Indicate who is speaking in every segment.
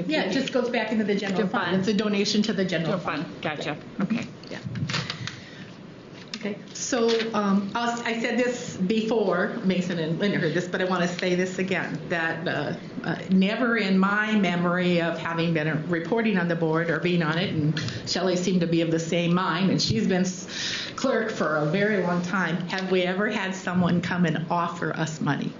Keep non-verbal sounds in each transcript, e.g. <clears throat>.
Speaker 1: if
Speaker 2: Yeah,
Speaker 1: we-
Speaker 2: it just goes back into the general
Speaker 1: General
Speaker 2: fund.
Speaker 1: fund.
Speaker 2: It's a donation to the general
Speaker 1: General
Speaker 2: fund.
Speaker 1: fund, gotcha, okay.
Speaker 2: Yeah. Okay, so um, I was- I said this before, Mason and Linda heard this, but I want to say this again, that uh, uh, never in my memory of having been a- reporting on the board or being on it, and Shelley seemed to be of the same mind, and she's been s- clerk for a very long time, have we ever had someone come and offer us money?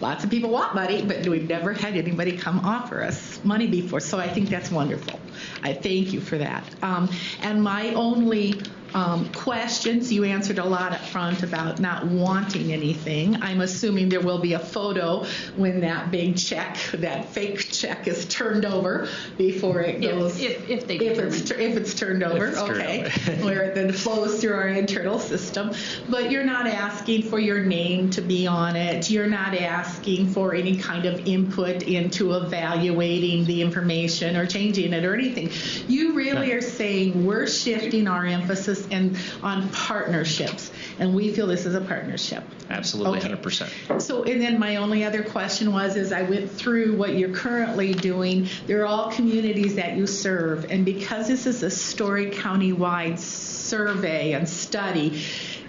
Speaker 2: Lots of people want money, but we've never had anybody come offer us money before, so I think that's wonderful. I thank you for that. Um, And my only um, questions, you answered a lot up front about not wanting anything. I'm assuming there will be a photo when that big check, that fake check is turned over before it goes.
Speaker 1: If, if, if they
Speaker 2: If
Speaker 1: determine.
Speaker 2: it's, tur- if it's turned over,
Speaker 3: it's turned
Speaker 2: okay, <laughs>
Speaker 3: over.
Speaker 2: where it then flows through our internal system. But you're not asking for your name to be on it. You're not asking for any kind of input into evaluating the information or changing it or anything. You really are saying we're shifting our emphasis and on partnerships, and we feel this is a partnership.
Speaker 3: Absolutely,
Speaker 2: Okay.
Speaker 3: 100%.
Speaker 2: So, and then my only other question was, as I went through what you're currently doing, they're all communities that you serve, and because this is a Story County-wide survey and study,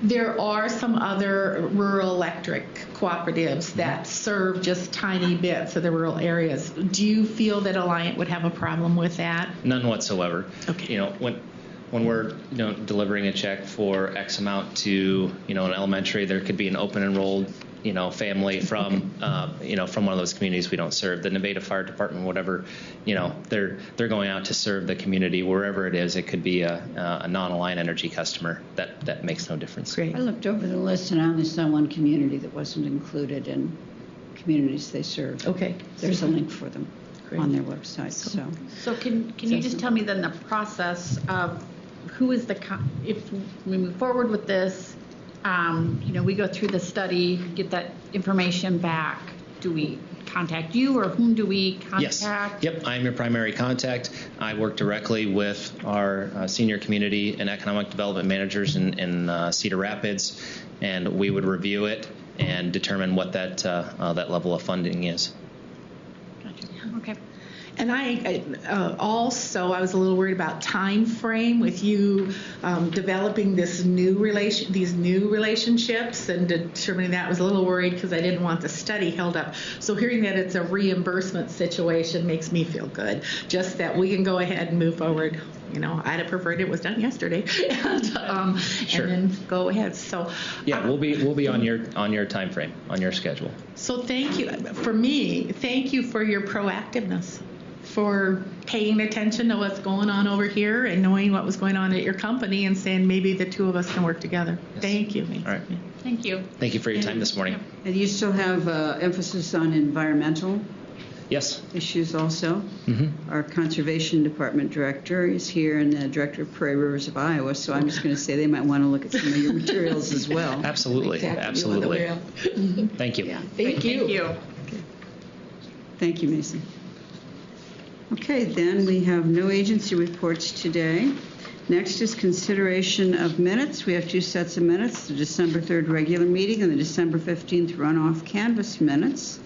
Speaker 2: there are some other rural electric cooperatives that serve just tiny bits of the rural areas. Do you feel that Alliant would have a problem with that?
Speaker 3: None whatsoever.
Speaker 2: Okay.
Speaker 3: You know, when when we're you know delivering a check for X amount to you know an elementary, there could be an open enrolled you know
Speaker 2: <laughs>
Speaker 3: family from uh, you know from one of those communities we don't serve. The Nevada Fire Department, whatever, you know, they're they're going out to serve the community wherever it is. It could be a, a non-aligned energy customer. That that makes no difference.
Speaker 2: Great.
Speaker 4: I looked over the list and I only saw one community that wasn't included in communities they serve.
Speaker 2: Okay.
Speaker 4: There's a link for them on their website, so.
Speaker 1: So can, can you just tell me then the process of who is the, co- if we move forward with this, um, you know, we go through the study, get that information back, do we contact you or whom do we
Speaker 3: Yes.
Speaker 1: contact?
Speaker 3: Yep, I am your primary contact. I work directly with our uh, senior community and economic development managers in, in uh, Cedar Rapids, and we would review it and determine what that uh, uh, that level of funding is.
Speaker 1: Gotcha. Okay.
Speaker 2: And I I, uh, also, I was a little worried about time frame with you um, developing this new relation, these new relationships, and determining that I was a little worried because I didn't want the study held up. So hearing that it's a reimbursement situation makes me feel good. Just that we can go ahead and move forward. You know, I'd have preferred it was done yesterday, <laughs> and, um,
Speaker 3: Sure.
Speaker 2: and then go ahead. So um,
Speaker 3: Yeah, we'll be we'll be on your on your time frame on your schedule.
Speaker 2: so thank you, for me, thank you for your proactiveness, for paying attention to what's going on over here and knowing what was going on at your company and saying maybe the two of us can work together.
Speaker 3: Yes.
Speaker 2: Thank you.
Speaker 3: All right.
Speaker 1: Thank you.
Speaker 3: Thank you for your time this morning.
Speaker 4: And you still have uh, emphasis on environmental
Speaker 3: Yes.
Speaker 4: issues also.
Speaker 3: hmm
Speaker 4: Our Conservation Department Director is here and the Director of Prairie Rivers of Iowa, so I'm just going to say they might want to look at some of your materials as well.
Speaker 3: Absolutely.
Speaker 4: Exactly.
Speaker 3: Absolutely. Thank you.
Speaker 4: Yeah.
Speaker 2: Thank
Speaker 1: Great,
Speaker 2: you.
Speaker 1: Thank you.
Speaker 4: Thank you, Mason. Okay, then we have no agency reports today. Next is consideration of minutes. We have two sets of minutes, the December 3rd regular meeting and the December 15th runoff canvas minutes.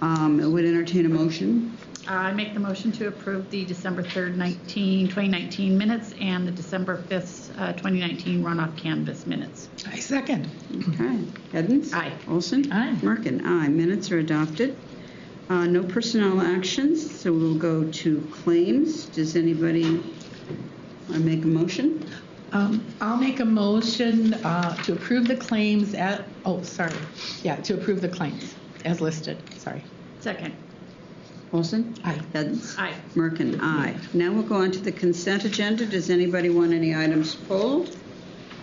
Speaker 4: Um, It would entertain a motion.
Speaker 1: Uh, I make the motion to approve the December 3rd, 19, 2019 minutes and the December 5th, uh, 2019 runoff canvas minutes.
Speaker 2: I second.
Speaker 4: Okay. Edens?
Speaker 1: Aye.
Speaker 4: Olson?
Speaker 2: Aye.
Speaker 4: Merkin? Aye. Minutes are adopted. Uh, No personnel actions, so we'll go to claims. Does anybody want to make a motion?
Speaker 2: Um, I'll make a motion uh, to approve the claims at, oh, sorry. Yeah, to approve the claims as listed. Sorry.
Speaker 1: Second.
Speaker 4: Olson?
Speaker 2: Aye.
Speaker 4: Edens?
Speaker 1: Aye.
Speaker 4: Merkin, aye. Now we'll go on to the consent agenda. Does anybody want any items pulled?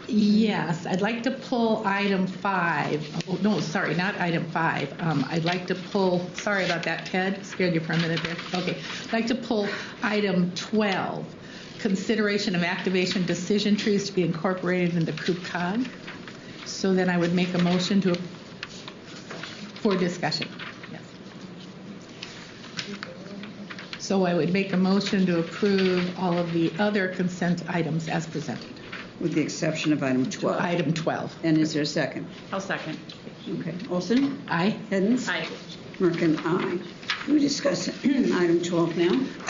Speaker 2: Yes, I'd like to pull item five. Oh, no, sorry, not item five. Um, I'd like to pull, sorry about that, Ted, scared you for a minute there. Okay, I'd like to pull item 12, consideration of activation decision trees to be incorporated into Coop Cog. So then I would make a motion to, for discussion. Yes. So I would make a motion to approve all of the other consent items as presented.
Speaker 4: With the exception of item 12.
Speaker 2: Item 12.
Speaker 4: And is there a second?
Speaker 1: I'll second.
Speaker 4: Okay. Olson?
Speaker 2: Aye.
Speaker 4: Hiddens?
Speaker 1: Aye.
Speaker 4: Merkin, aye. We discuss <clears throat> item 12 now.